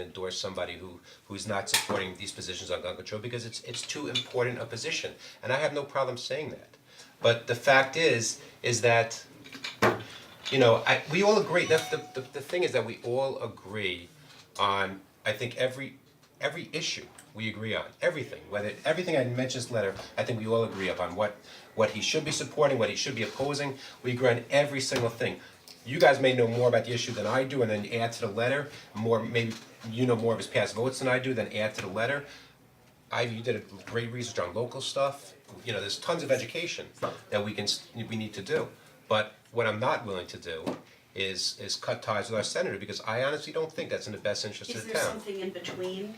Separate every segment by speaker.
Speaker 1: endorse somebody who who's not supporting these positions on gun control because it's it's too important a position, and I have no problem saying that. But the fact is, is that you know, I, we all agree, that's the, the, the thing is that we all agree on, I think every, every issue we agree on, everything, whether, everything I mentioned in this letter, I think we all agree upon what, what he should be supporting, what he should be opposing, we agree on every single thing. You guys may know more about the issue than I do and then add to the letter, more, maybe, you know more of his past votes than I do, then add to the letter. I, you did a great research on local stuff, you know, there's tons of education that we can, s- we need to do. But what I'm not willing to do is, is cut ties with our senator, because I honestly don't think that's in the best interest
Speaker 2: Is
Speaker 1: of the
Speaker 2: there
Speaker 1: town.
Speaker 2: something in between?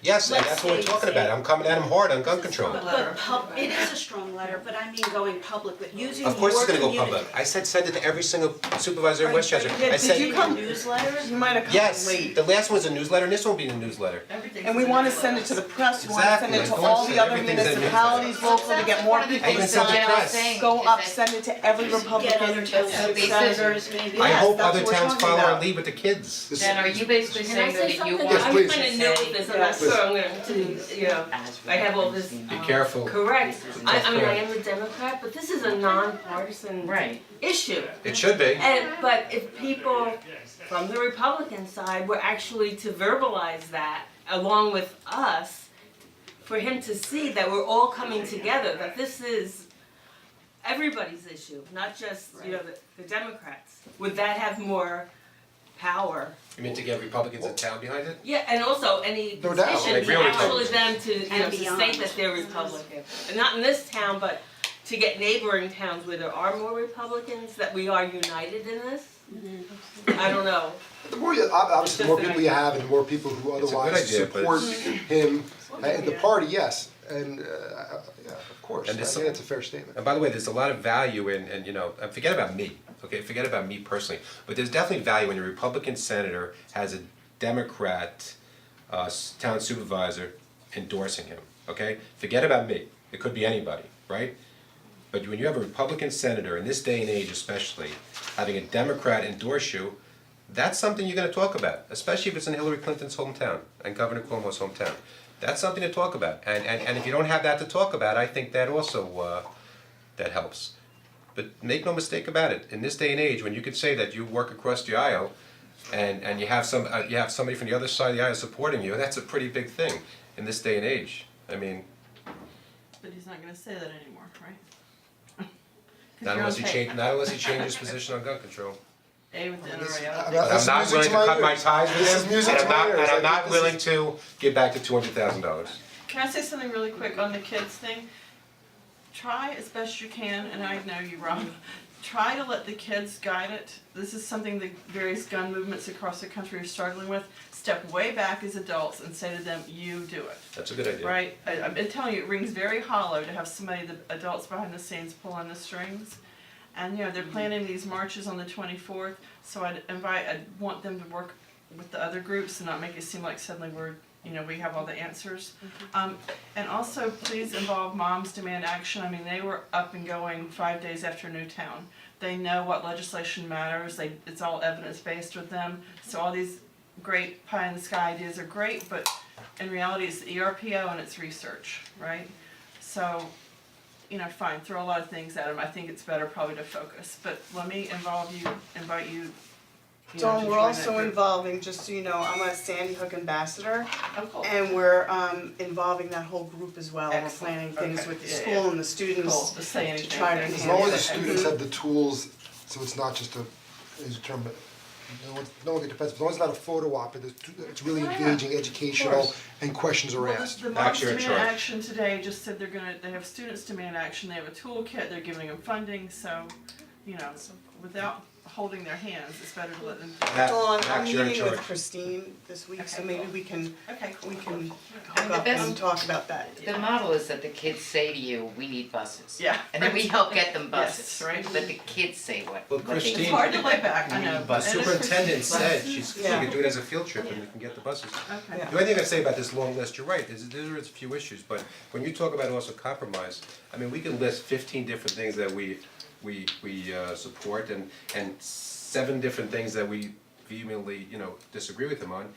Speaker 1: Yes, and
Speaker 2: let's
Speaker 1: that's what we're
Speaker 2: say-
Speaker 1: talking about,
Speaker 2: say-
Speaker 1: I'm coming at him hard on gun control.
Speaker 2: But but pub, it is a strong letter, but I mean going public, but using your
Speaker 1: Of course it's gonna go
Speaker 2: community.
Speaker 1: public, I said send it to every single supervisor in
Speaker 3: Are-
Speaker 1: Westchester,
Speaker 3: yeah,
Speaker 1: I
Speaker 3: did
Speaker 1: said.
Speaker 3: you come-
Speaker 2: Newsletters?
Speaker 3: You might have come
Speaker 1: Yes,
Speaker 3: late.
Speaker 1: the last one's a newsletter, and this one will be in the newsletter.
Speaker 3: And we wanna send it to the press, we wanna send it to
Speaker 1: Exactly.
Speaker 3: all the other
Speaker 1: Everything's in there.
Speaker 3: municipalities local to get more people
Speaker 1: I
Speaker 3: to
Speaker 1: can send it
Speaker 3: sign
Speaker 1: to
Speaker 3: up.
Speaker 1: press.
Speaker 3: Go up, send it to every
Speaker 2: Get other
Speaker 3: Republican,
Speaker 2: towns, senators,
Speaker 3: senators.
Speaker 2: maybe.
Speaker 1: I
Speaker 3: Yes,
Speaker 1: hope
Speaker 3: that's
Speaker 1: other
Speaker 3: what we're
Speaker 1: towns
Speaker 3: talking
Speaker 1: follow our
Speaker 3: about.
Speaker 1: lead with the kids.
Speaker 4: Then are you basically
Speaker 5: Can I
Speaker 4: saying
Speaker 5: say
Speaker 4: that you
Speaker 5: something?
Speaker 4: want
Speaker 5: I'm
Speaker 4: to
Speaker 5: kinda
Speaker 4: say?
Speaker 5: new at this, I'm not
Speaker 3: Please.
Speaker 5: sure I'm gonna, to, you know, I have all this.
Speaker 1: Be careful,
Speaker 5: Correct, I, I mean, I am a Democrat, but this is a nonpartisan
Speaker 4: Right.
Speaker 5: issue.
Speaker 1: it should be,
Speaker 5: And, but if people from the Republican side were actually to verbalize that along with us, for him to see that we're all coming together, that this is everybody's issue, not just, you know, the, the Democrats, would that have more power?
Speaker 1: you mean to get Republicans in town behind it?
Speaker 5: Yeah, and also any
Speaker 6: No doubt.
Speaker 5: position
Speaker 1: Like
Speaker 5: to
Speaker 1: real
Speaker 5: actually
Speaker 1: Republicans.
Speaker 5: them to, you know,
Speaker 2: And
Speaker 5: to
Speaker 2: beyond.
Speaker 5: state that they're Republican. And Not in this town, but to get neighboring towns where there are more Republicans, that we are united in this.
Speaker 2: Mm-hmm.
Speaker 5: I don't know.
Speaker 6: The more you, ob- obviously, the more people you have and the more people who
Speaker 1: It's a good
Speaker 6: otherwise
Speaker 1: idea, but
Speaker 6: support him and the party, yes, and, uh, yeah, of course, I
Speaker 1: And this-
Speaker 6: think that's a fair statement.
Speaker 1: And by the way, there's a lot of value in, and you know, uh, forget about me, okay, forget about me personally, but there's definitely value when a Republican senator has a Democrat uh, s- town supervisor endorsing him, okay? Forget about me, it could be anybody, right? But when you have a Republican senator, in this day and age especially, having a Democrat endorse you, that's something you're gonna talk about, especially if it's in Hillary Clinton's hometown and Governor Cuomo's hometown. That's something to talk about, and and and if you don't have that to talk about, I think that also uh that helps. But make no mistake about it, in this day and age, when you could say that you work across the aisle and and you have some, uh, you have somebody from the other side of the aisle supporting you, that's a pretty big thing in this day and age. I mean,
Speaker 7: But he's not gonna say that anymore, right? 'Cause
Speaker 1: not
Speaker 7: you're
Speaker 1: unless
Speaker 7: on
Speaker 1: he
Speaker 7: tape.
Speaker 1: changes, not unless he changes position on gun control.
Speaker 7: A with dinner,
Speaker 6: This-
Speaker 7: right? I don't
Speaker 6: I'm
Speaker 7: think-
Speaker 6: not-
Speaker 1: But
Speaker 6: this
Speaker 1: I'm
Speaker 6: is
Speaker 1: not
Speaker 6: music
Speaker 1: willing
Speaker 6: to
Speaker 1: to cut
Speaker 6: ears.
Speaker 1: my ties
Speaker 6: This
Speaker 1: with
Speaker 6: is
Speaker 1: him, and
Speaker 6: music to
Speaker 1: I'm not,
Speaker 6: my
Speaker 1: and
Speaker 6: ears. I
Speaker 1: I'm
Speaker 6: think
Speaker 1: not
Speaker 6: this
Speaker 1: willing
Speaker 6: is-
Speaker 1: to give back the two hundred thousand dollars.
Speaker 7: Can I say something really quick on the kids thing? Try as best you can, and I know you, Rob, try to let the kids guide it. This is something the various gun movements across the country are struggling with. Step way back as adults and say to them, you do it.
Speaker 1: That's a good idea.
Speaker 7: Right, I, I've been telling you, it rings very hollow to have somebody, the adults behind the scenes pulling the strings. And, you know, they're planning these marches on the twenty-fourth, so I'd invite, I'd want them to work with the other groups and not make it seem like suddenly we're, you know, we have all the answers. Um, and also, please involve Moms Demand Action, I mean, they were up and going five days after Newtown. They know what legislation matters, they, it's all evidence-based with them, so all these great pie in the sky ideas are great, but in reality, it's the E ERPO and it's research, right? So, you know, fine, throw a lot of things at them, I think it's better probably to focus, but let me involve you, invite you, you know, to
Speaker 3: Dawn, we're
Speaker 7: join that
Speaker 3: also
Speaker 7: group.
Speaker 3: involving, just so you know, I'm a Sandy Hook ambassador,
Speaker 7: Oh, cool.
Speaker 3: and we're, um, involving that whole group as well. We're planning
Speaker 7: Excellent.
Speaker 3: things
Speaker 7: Okay.
Speaker 3: with the
Speaker 7: Yeah,
Speaker 3: school
Speaker 7: yeah.
Speaker 3: and the
Speaker 7: Cool.
Speaker 3: students
Speaker 7: Just say
Speaker 3: to
Speaker 7: anything.
Speaker 3: try to enhance
Speaker 6: As long as the
Speaker 3: it.
Speaker 6: students have the tools, so it's not just a, is a term, but no one, no one can defend, as long as it's not a photo op, it's, it's really engaging, educational, and questions are
Speaker 7: Well,
Speaker 6: asked.
Speaker 7: the, the
Speaker 1: Back
Speaker 7: Moms
Speaker 1: to your
Speaker 7: Demand
Speaker 1: chart.
Speaker 7: Action today just said they're gonna, they have students demand action, they have a toolkit, they're giving them funding, so, you know, without holding their hands, it's better to let them.
Speaker 1: That-
Speaker 3: Dawn, I'm
Speaker 1: that's your
Speaker 3: meeting
Speaker 1: charge.
Speaker 3: with Christine this week, so
Speaker 7: Okay,
Speaker 3: maybe
Speaker 7: cool.
Speaker 3: we can,
Speaker 7: Okay,
Speaker 3: we can
Speaker 4: And
Speaker 3: hook
Speaker 4: the
Speaker 3: up and
Speaker 4: best-
Speaker 3: talk about that.
Speaker 4: The model is that the kids say to you, we need buses.
Speaker 7: Yeah.
Speaker 4: And then we help get them buses,
Speaker 7: Yes, right.
Speaker 4: but the kids say what,
Speaker 1: Well,
Speaker 4: what they
Speaker 1: Christine-
Speaker 7: It's hard to lay back, I know,
Speaker 1: The
Speaker 7: but it is.
Speaker 1: superintendent said she's, she
Speaker 3: Yeah.
Speaker 1: could do it as a field trip and we can get the buses.
Speaker 7: Okay.
Speaker 3: Yeah.
Speaker 1: The only thing I'd say about this long list, you're right, there's, there is a few issues, but when you talk about also compromise, I mean, we can list fifteen different things that we, we, we, uh, support and, and seven different things that we vehemently, you know, disagree with them on.